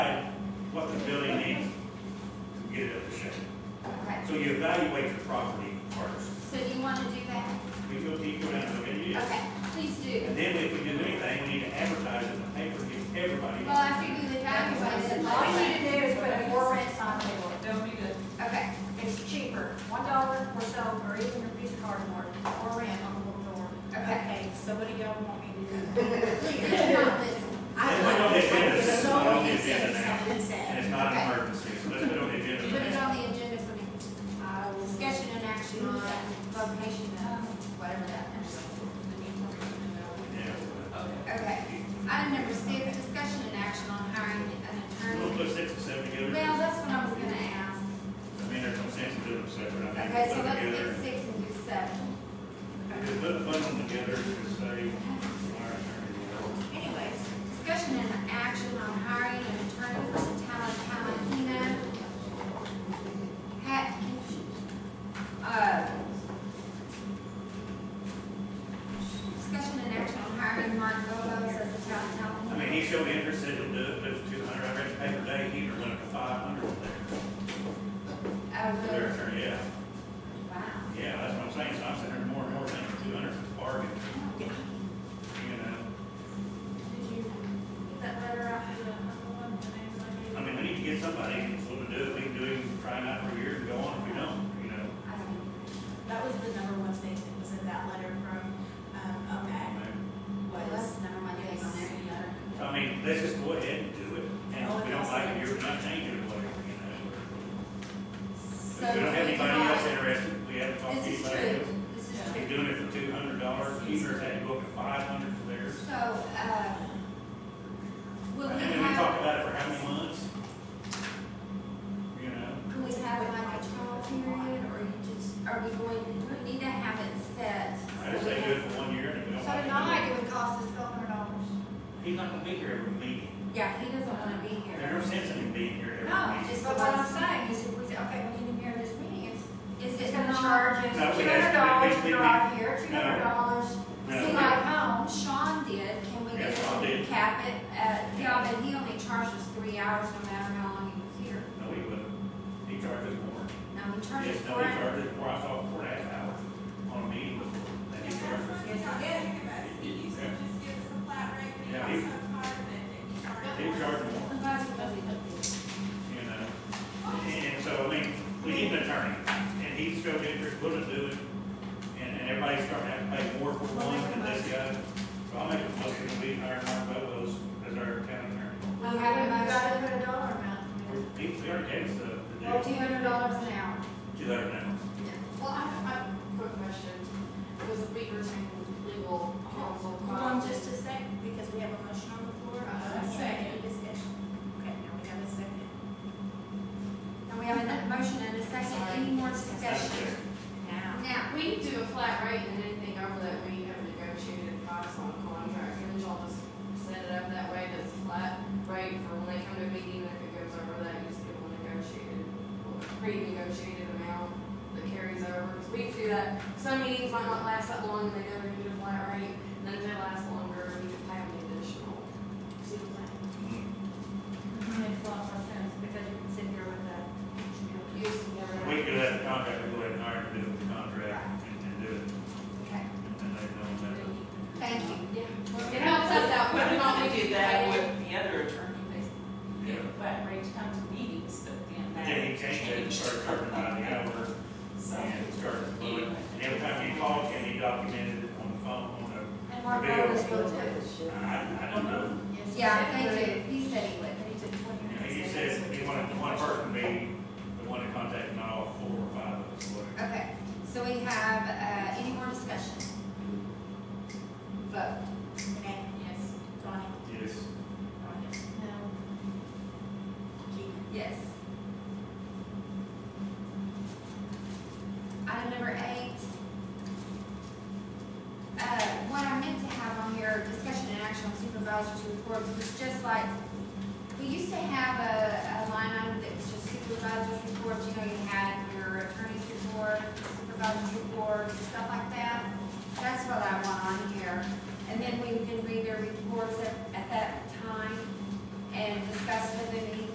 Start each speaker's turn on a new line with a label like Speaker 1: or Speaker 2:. Speaker 1: So you evaluate the property first.
Speaker 2: So do you want to do that?
Speaker 1: We go deep down and look at it.
Speaker 2: Okay, please do.
Speaker 1: And then if we do anything, we need to advertise in the paper, give everybody.
Speaker 2: Well, after you do the evaluation,
Speaker 3: All you need
Speaker 2: like,
Speaker 3: to do is put a four rent sign there.
Speaker 4: Don't be good.
Speaker 2: okay,
Speaker 3: It's cheaper, one dollar or so, or even a piece of cardboard, or rent on the little door.
Speaker 2: Okay.
Speaker 3: so what do y'all want me to do?
Speaker 2: please, do not listen.
Speaker 1: Let's put it on the agenda, this is not on the agenda now, and
Speaker 5: Put
Speaker 1: it's not
Speaker 2: Okay.
Speaker 1: an emergency, so let's put it on the agenda.
Speaker 2: Put it
Speaker 1: now.
Speaker 2: on the agenda for next,
Speaker 5: I will
Speaker 2: discussion and action on location of whatever that is.
Speaker 1: Yeah.
Speaker 2: Okay, item number six, discussion and action on hiring an
Speaker 1: We'll
Speaker 2: attorney.
Speaker 1: put six and seven together.
Speaker 2: Well, that's what I was gonna ask.
Speaker 1: I mean, there's no sense in doing them separate. I mean,
Speaker 2: Okay, so
Speaker 1: put them
Speaker 2: let's
Speaker 1: together.
Speaker 2: get six and do seven.
Speaker 1: Just put, put them together and say, all right, all right.
Speaker 2: Anyways, discussion and action on hiring an attorney for the town of Tallahassee. Hat, uh, discussion and action on hiring Mark Bolos as the town
Speaker 1: I
Speaker 2: council.
Speaker 1: mean, he showed interest, said he'll do it, but two hundred, I read the paper today, he was running for five hundred there.
Speaker 2: I
Speaker 1: For their
Speaker 2: will,
Speaker 1: attorney, yeah,
Speaker 2: wow.
Speaker 1: yeah, that's what I'm saying, so I'm sitting there more and more thinking two hundred is a bargain, you know?
Speaker 2: Did you get that letter out?
Speaker 1: I mean, we need to get somebody who's willing to do it, we can do it, try it out for a year and go on if we don't, you know?
Speaker 2: I don't
Speaker 5: That was the number one thing that was in that letter from, um,
Speaker 1: I
Speaker 5: OMAG
Speaker 1: mean,
Speaker 2: know. That's
Speaker 5: was.
Speaker 2: the number one thing on there.
Speaker 1: I mean, let's just go ahead and do it, and if we don't like it, you're not changing it, whatever, you know?
Speaker 2: So
Speaker 1: If we don't have
Speaker 2: we
Speaker 1: anybody else
Speaker 2: cannot-
Speaker 1: interested, we haven't talked to
Speaker 2: This is
Speaker 1: anybody else.
Speaker 2: true, this is true.
Speaker 1: They're doing it for two hundred dollars, Keeper had to go up to five hundred for theirs.
Speaker 2: So, uh, will
Speaker 1: And
Speaker 2: we
Speaker 1: then we talked
Speaker 2: have,
Speaker 1: about it for how many months? You know,
Speaker 2: can we have like a trial period, or you just, are we going, do we need to have it set?
Speaker 1: I just say do it for one year and if we don't
Speaker 3: So
Speaker 1: like it.
Speaker 3: tonight it would cost us twelve hundred dollars.
Speaker 1: He's not gonna be here every meeting.
Speaker 2: Yeah, he doesn't wanna be
Speaker 1: There's no
Speaker 2: here.
Speaker 1: sense in him being here every
Speaker 3: No,
Speaker 1: meeting.
Speaker 3: just but what I'm saying is if we say, okay, we need him here this meeting, it's,
Speaker 2: Is
Speaker 3: it's
Speaker 2: it
Speaker 3: gonna
Speaker 2: not,
Speaker 3: charge us
Speaker 1: No, we
Speaker 3: two
Speaker 1: have
Speaker 3: hundred
Speaker 1: to
Speaker 3: dollars to
Speaker 1: basically
Speaker 3: drive here, two
Speaker 1: no.
Speaker 3: hundred dollars
Speaker 1: No.
Speaker 3: to ride home.
Speaker 2: Sean did, can we
Speaker 1: Yeah,
Speaker 2: get
Speaker 1: Sean
Speaker 2: him
Speaker 1: did.
Speaker 2: cap it, uh, yeah, but he only charged us three hours no matter how long he was here.
Speaker 1: No, he wouldn't. He charges more.
Speaker 2: Now, he charged
Speaker 1: Yes,
Speaker 2: us
Speaker 1: no,
Speaker 2: four
Speaker 1: he charges more. I saw four and a half hours on a meeting before. And he charges. Yeah, he, he charges more, you know? And so, I mean, we need an attorney and he showed interest, wouldn't do it. And, and everybody's starting to have to pay more for one than this guy. So I'll make a motion that we hire Mark Bobo's as our town attorney.
Speaker 2: We have a
Speaker 3: We've gotta
Speaker 2: motion,
Speaker 3: put a dollar amount in there.
Speaker 1: He, he already gave us the, the
Speaker 2: well,
Speaker 1: deal,
Speaker 2: two hundred dollars an hour.
Speaker 1: two hundred now.
Speaker 6: Well, I have a quick question, because we were saying legal counsel.
Speaker 5: Hold on just a sec, because we have a motion on the floor.
Speaker 6: Uh, second.
Speaker 5: Any discussion? Okay, now we have a second.
Speaker 2: And we have a motion and a second, any more discussion?
Speaker 5: Now.
Speaker 2: Now,
Speaker 6: We do a flat rate and anything over that we have negotiated price on contract, and y'all just set it up that way, that's a flat rate for when they come to a meeting, if it goes over that, you just give them a negotiated, pre-negotiated amount that carries over, because we do that, some meetings might not last that long, and they never get a flat rate, and then if they last longer, we can pay them additional.
Speaker 1: Mm-hmm.
Speaker 3: Makes a lot more sense, because you can sit here with that.
Speaker 6: Use of
Speaker 1: We could have the contract, we go ahead and hire him to do the contract and, and do it,
Speaker 2: okay,
Speaker 1: and they know that.
Speaker 2: thank you.
Speaker 6: Yeah, it helps us out,
Speaker 7: But
Speaker 6: but
Speaker 7: we
Speaker 6: not
Speaker 7: only
Speaker 6: only
Speaker 7: did
Speaker 6: do
Speaker 7: that
Speaker 6: that
Speaker 7: with the other attorney, they gave a flat rate to come to meetings, but then that
Speaker 1: Then he changed it, and
Speaker 7: changed.
Speaker 1: started charging by the hour,
Speaker 7: So,
Speaker 1: and started doing, and every time you called, and he documented it on the phone, on the,
Speaker 3: And Mark Rose will do it.
Speaker 1: I, I don't know.
Speaker 2: Yeah, thank you, he said he would.
Speaker 3: He took twenty
Speaker 1: You know,
Speaker 3: minutes.
Speaker 1: you said we want one person to be the one to contact, not all four or five of us, whatever.
Speaker 2: Okay, so we have, uh, any more discussion? Vote.
Speaker 5: Renee? Yes. Donnie?
Speaker 1: Yes.
Speaker 5: Rhonda?
Speaker 3: No.
Speaker 5: Gina?
Speaker 2: Yes. Uh,